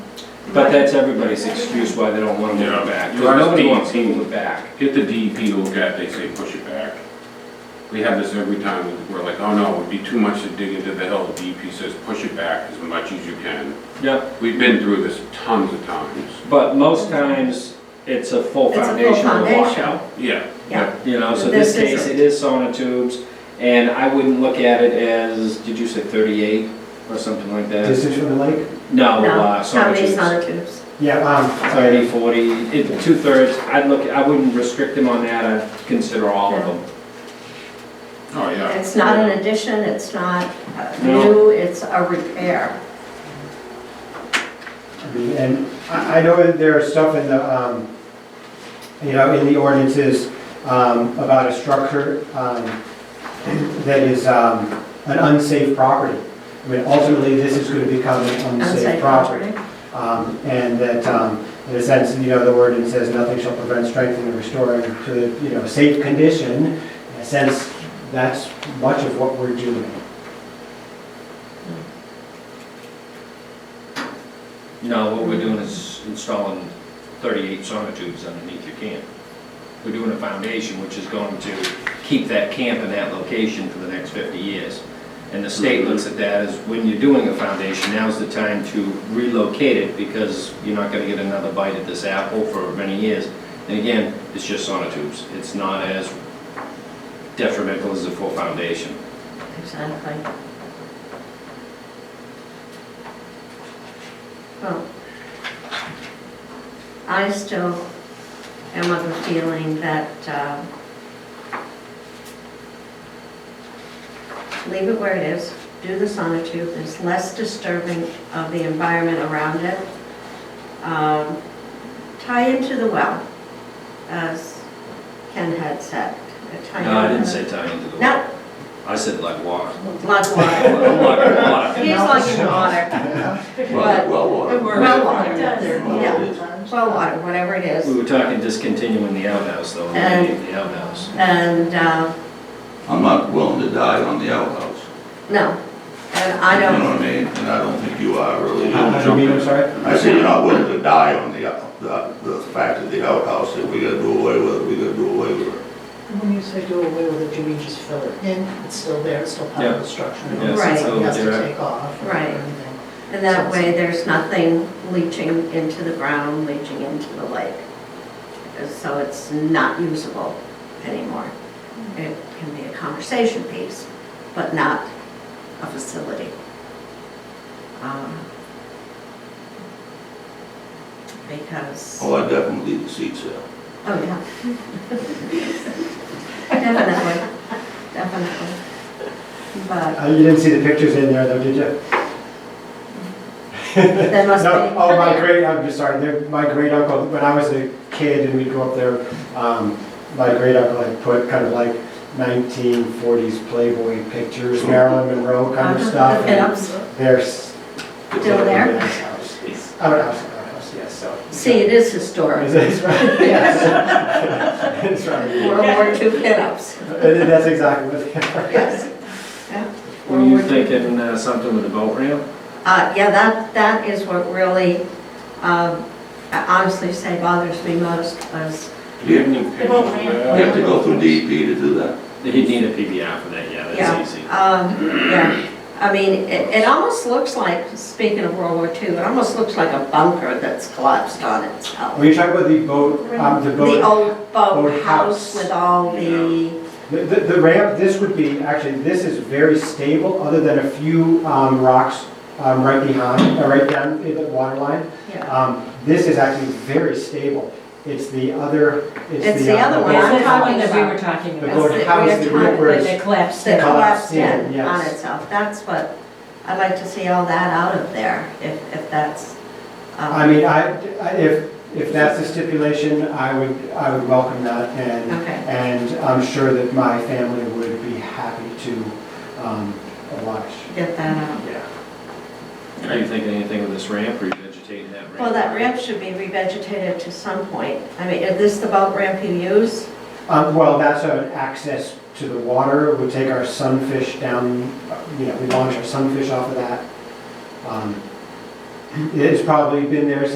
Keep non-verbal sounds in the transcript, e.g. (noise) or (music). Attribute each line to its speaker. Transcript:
Speaker 1: But that's everybody's excuse why they don't want to move it back. 'cause
Speaker 2: Yeah.
Speaker 1: Nobody wants to move it back.
Speaker 2: Get the DEP to look at, it, they say push it back. We have this every time, we're like, oh no, it'd be too much to dig into the hill, DEP says push it back as much as you can.
Speaker 1: Yeah,
Speaker 2: We've been through this tons of times.
Speaker 1: but most times, it's a full
Speaker 3: It's a full
Speaker 1: foundation or
Speaker 3: foundation.
Speaker 1: washout.
Speaker 2: Yeah.
Speaker 3: Yeah.
Speaker 1: You know, so
Speaker 3: This
Speaker 1: this case,
Speaker 3: isn't.
Speaker 1: it is sonotubes, and I wouldn't look at it as, did you say thirty-eight or something like that?
Speaker 4: Distance from the lake?
Speaker 1: No, uh,
Speaker 3: No, how many
Speaker 1: sonotubes,
Speaker 3: sonotubes?
Speaker 4: Yeah, um,
Speaker 1: thirty, forty, it, two-thirds, I'd look, I wouldn't restrict them on that, I'd consider all of
Speaker 3: Yeah.
Speaker 1: them.
Speaker 2: Oh, yeah.
Speaker 3: It's not an addition, it's not uh,
Speaker 1: No.
Speaker 3: new, it's a repair.
Speaker 4: and I, I know that there is stuff in the, um, you know, in the ordinances, um, about a structure, um, that is, um, an unsafe property. I mean, ultimately, this is gonna become an
Speaker 3: unsafe
Speaker 4: unsafe property. Um, And that, um, in a sense, you know, the ordinance says nothing shall prevent strengthening or restoring to, you know, safe condition. In a sense, that's much of what we're doing.
Speaker 1: No, what we're doing is installing thirty-eight sonotubes underneath your camp. We're doing a foundation which is going to keep that camp in that location for the next fifty years. And the state looks at that as, when you're doing a foundation, now's the time to relocate it because you're not gonna get another bite at this apple for many years. And again, it's just sonotubes, it's not as detrimental as a full foundation.
Speaker 3: Exactly. Well, Oh. I still am of the feeling that, um, leave it where it is, do the sonotube, it's less disturbing of the environment around it. Um, Tie into the well, as Ken had said. Tie
Speaker 1: No, I
Speaker 3: into
Speaker 1: didn't
Speaker 3: the-
Speaker 1: say tie into the
Speaker 3: No,
Speaker 1: water, I said like water. (laughs)
Speaker 3: Blood water.
Speaker 1: Like water.
Speaker 3: He's lugging water.
Speaker 5: Well, well water.
Speaker 3: Well water, yeah,
Speaker 6: Yeah.
Speaker 3: well water, whatever it
Speaker 1: We
Speaker 3: is.
Speaker 1: were talking discontinuing the outhouse, though, eliminating the outhouse.
Speaker 3: And, uh,
Speaker 5: I'm not willing to die on the outhouse.
Speaker 3: no, and I
Speaker 5: You know
Speaker 3: don't,
Speaker 5: what I mean? And I don't think you are really.
Speaker 4: I don't mean, I'm sorry?
Speaker 5: I say you're not willing to die on the, out- the, the fact of the outhouse, that we gotta do away with it, we gotta do away with it.
Speaker 6: When you say do away with it, do you mean just fill it in? It's still there, it's still part of the structure.
Speaker 1: Yeah,
Speaker 3: it's Right.
Speaker 6: It has
Speaker 1: still
Speaker 6: to
Speaker 1: there.
Speaker 6: take off or
Speaker 3: Right.
Speaker 6: anything.
Speaker 3: and that way there's nothing leaching into the ground, leaching into the lake. So it's not usable anymore. It can be a conversation piece, but not a facility. Um, Because.
Speaker 5: Oh, I definitely leave the seats there.
Speaker 3: Oh, yeah. Definitely, definitely. But
Speaker 4: Uh, You didn't see the pictures in there, though, did you?
Speaker 3: there must be.
Speaker 4: No, oh, my great, I'm just sorry, they're- my great uncle, when I was a kid and we'd go up there, um, my great uncle had put kind of like nineteen forties Playboy pictures, Marilyn Monroe kind of
Speaker 3: Uh-huh,
Speaker 4: stuff.
Speaker 3: The
Speaker 4: and
Speaker 3: pinups.
Speaker 4: There's.
Speaker 3: Still there?
Speaker 4: Outhouse, outhouse, yes, so.
Speaker 3: See, it is historic.
Speaker 4: Is it- it's right, yes.
Speaker 3: (laughs)
Speaker 4: It's right.
Speaker 3: World War II pinups,
Speaker 4: And That's exactly what they are.
Speaker 3: yes. Yeah.
Speaker 1: Were
Speaker 3: World
Speaker 1: you
Speaker 3: War II.
Speaker 1: thinking uh, something with a boat ramp?
Speaker 3: Uh, yeah, that, that is what really, um, I honestly say bothers me most, was
Speaker 1: Do you have any pictures
Speaker 6: boat
Speaker 1: of
Speaker 6: ramp.
Speaker 1: that?
Speaker 5: You have to go through DEP to do that.
Speaker 1: He'd need a PBR for that, yeah,
Speaker 3: Yeah.
Speaker 1: that's easy.
Speaker 3: Um, yeah, I mean, it, it almost looks like, speaking of World War II, it almost looks like a bunker that's collapsed on itself.
Speaker 4: Were you talking about the boat, um, the boat?
Speaker 3: The old boathouse
Speaker 4: boathouse.
Speaker 3: with all the,
Speaker 4: The, the the ramp, this would be, actually, this is very stable, other than a few um, rocks um, right behind, uh, right down in the water line.
Speaker 3: yeah.
Speaker 4: Um, This is actually very stable. It's the other, it's the.
Speaker 3: It's the
Speaker 4: uh,
Speaker 3: other one.
Speaker 4: boat-
Speaker 3: I'm
Speaker 7: That's the
Speaker 3: talking
Speaker 7: one that we
Speaker 3: about-
Speaker 7: were talking
Speaker 4: The
Speaker 3: That's
Speaker 7: about,
Speaker 3: boat-
Speaker 4: boathouse,
Speaker 3: the
Speaker 4: the
Speaker 3: rear
Speaker 4: ripper
Speaker 7: where
Speaker 4: is
Speaker 7: they collapsed
Speaker 3: That
Speaker 7: it.
Speaker 3: collapsed
Speaker 4: collapsed
Speaker 3: in
Speaker 4: in,
Speaker 3: on
Speaker 4: yes.
Speaker 3: itself. That's what, I'd like to see all that out of there, if, if that's. um,
Speaker 4: I mean, I, I- if, if that's the stipulation, I would, I would welcome that, and,
Speaker 3: Okay.
Speaker 4: and I'm sure that my family would be happy to um, oblige.
Speaker 3: Get that out.
Speaker 4: Yeah.
Speaker 1: Are you thinking anything with this ramp, or you vegetating that ramp?
Speaker 3: Well, that ramp should be revegetated to some point. I mean, is this the boat ramp you use?
Speaker 4: Um, well, that's an access to the water, we take our sunfish down, uh, you know, we launch our sunfish off of that. Um, It's probably been there